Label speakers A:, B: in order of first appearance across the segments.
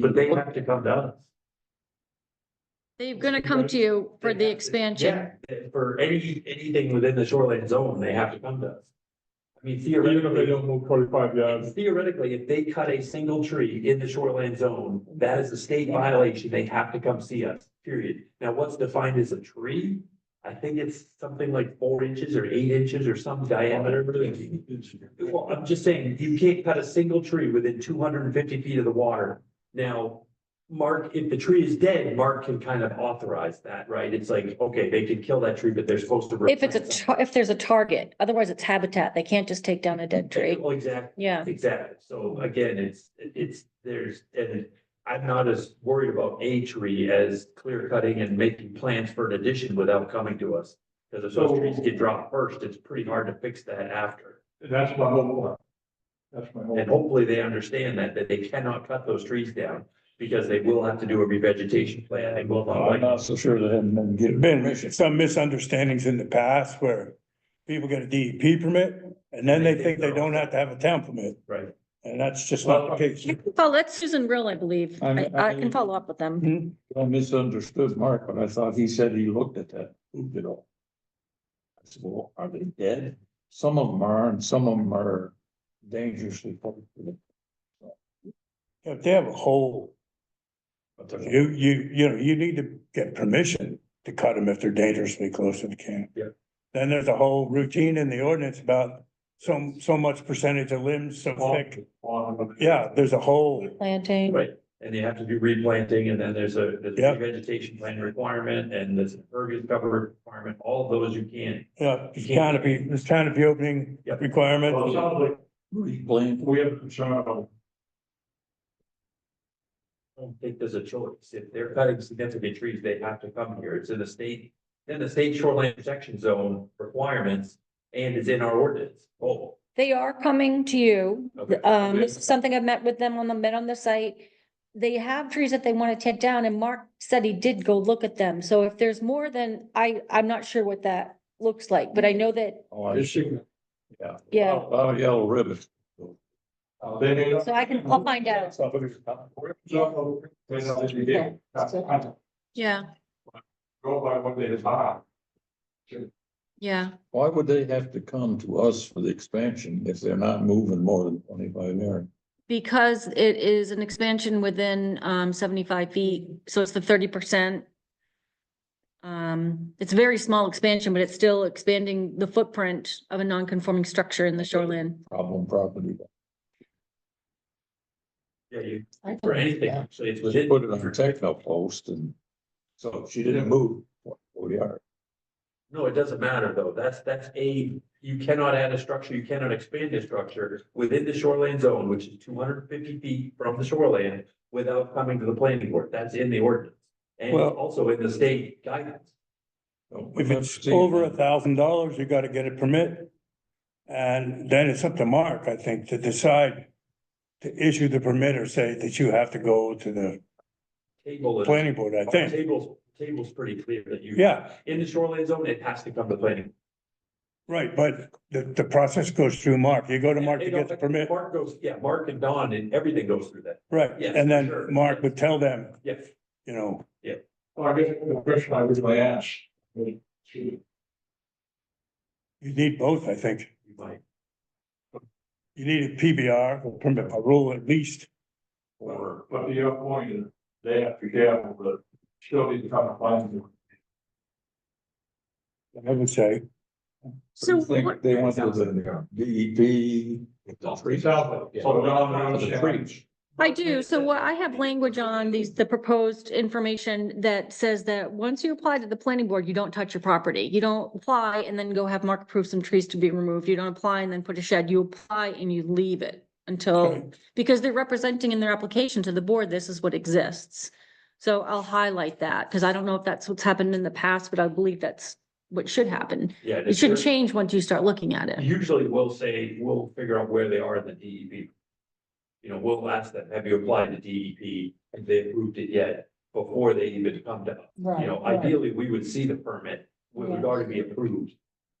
A: But they have to come to us.
B: They're gonna come to you for the expansion.
A: Yeah, for any, anything within the shoreline zone, they have to come to us. I mean
C: Even if they
A: theoretically,
C: don't uh, move forty-five yards,
A: theoretically, if they cut a single tree in the shoreline zone, that is a state violation. They have to come see us, period. Now, what's defined as a tree? I think it's something like four inches or eight inches or some diameter. Well, I'm just saying, you can't cut a single tree within two hundred and fifty feet of the water. Now, Mark, if the tree is dead, Mark can kind of authorize that, right? It's like, okay, they can kill that tree, but they're supposed to.
D: If it's a,
A: replant
D: tar- if there's a target, otherwise it's habitat. They can't just take down a dead
A: something.
D: tree.
A: Well, exactly,
D: Yeah.
A: Oh, exactly. So again, it's, it's, there's, and I'm not as worried about a tree as clear cutting and making plans for an addition without coming to us. Because if those
C: So-
A: trees get dropped first, it's pretty hard to fix that after.
C: that's my whole point. That's my whole.
A: And hopefully they understand that, that they cannot cut those trees down because they will have to do a revegetation plan. They will not
E: I'm
A: like.
E: not so sure they hadn't been getting.
F: been mis- some misunderstandings in the past where people get a DEP permit and then they think they don't have to have a town permit.
A: Right.
F: And that's just not the case.
D: You can follow, that's Susan Rill, I believe.
E: I'm-
D: I, I
E: I'm-
D: can follow up with them.
F: Mhm.
E: I misunderstood Mark, but I thought he said he looked at that, moved it all. I said, well, are they dead? Some of them are and some of them are dangerously. close to them,
F: If they have a hole,
E: But they're
F: you, you, you know, you need to get permission to cut them if they're dangerously close to the can.
A: Yeah.
F: Then there's a whole routine in the ordinance about so, so much percentage of limbs so thick. Yeah, there's a whole,
D: Planting.
A: Right. And you have to do replanting and then there's a, there's a
F: Yeah.
A: vegetation plan requirement and there's an impervious cover requirement. All of those you can.
F: yeah, canopy, there's canopy opening
A: Yeah.
F: requirement.
C: Well, it sounds like
E: replanted.
C: we have a concern about
A: I don't think there's a choice. If they're cutting significant trees, they have to come here. It's in the state, in the state shoreline protection zone requirements and it's in our ordinance. Oh,
D: They are coming to you.
A: Okay.
D: Um, this is something I've met with them on the, met on the site. They have trees that they want to take down and Mark said he did go look at them. So if there's more than, I, I'm not sure what that looks like, but I know that,
E: Oh, I Oh, see. Yeah.
D: Yeah.
E: A lot of yellow ribbon.
C: uh, they may not.
D: so I can, I'll find out.
C: So, they know that you did. That's it. I
B: Yeah,
C: Go by what they design.
B: yeah.
E: Why would they have to come to us for the expansion if they're not moving more than twenty-five yards?
B: Because it is an expansion within um seventy-five feet, so it's the thirty percent. Um, it's a very small expansion, but it's still expanding the footprint of a non-conforming structure in the shoreline.
E: Problem property.
A: yeah, you, for anything, actually, it's
E: She
A: within.
E: put it on her techno post and so she didn't move what we are.
A: No, it doesn't matter though. That's, that's a, you cannot add a structure, you cannot expand a structure within the shoreline zone, which is two hundred and fifty feet from the shoreline without coming to the planning board. That's in the ordinance. And
F: Well-
A: it's also in the state guidance.
F: If it's over a thousand dollars, you gotta get a permit. And then it's up to Mark, I think, to decide to issue the permit or say that you have to go to the
A: Table is, uh,
F: planning board, I think.
A: table's, table's pretty clear that you.
F: Yeah,
A: In the shoreline zone, it has to come to planning.
F: right, but the, the process goes through Mark. You go to Mark to get the permit,
A: Mark goes, yeah, Mark and Don and everything goes through that.
F: right?
A: Yes,
F: And
A: sure.
F: then Mark would tell them,
A: Yes.
F: you know,
C: Well, I guess the question I was gonna ask. was, should-
F: you need both, I think.
A: You might,
F: You need a PBR, or permit by rule at least.
C: Or, but the other point is, they have to gamble, but still need to come to find them.
F: I would say,
B: So
E: think
B: what,
E: They went to the DEP.
C: Three thousand. So Don, I
E: E The
C: understand.
E: trees.
B: I do, so what, I have language on these, the proposed information that says that once you apply to the planning board, you don't touch your property. You don't apply and then go have Mark approve some trees to be removed. You don't apply and then put a shed. You apply and you leave it until
F: okay,
B: because they're representing in their application to the board, this is what exists. So I'll highlight that, because I don't know if that's what's happened in the past, but I believe that's what should happen.
A: yeah. and
B: It
A: it's
B: should
A: your-
B: change once you start looking at it.
A: Usually we'll say, we'll figure out where they are in the DEP. You know, we'll ask them, have you applied to DEP? Have they approved it yet? Before they even come to, you know, ideally, we would see the permit. We would already be approved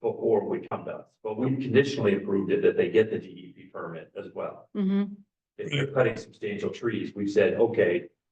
A: before we come to us. But we conditionally approved it that they get the DEP permit E as well.
B: Mhm.
A: If they're cutting substantial trees, we've said, okay,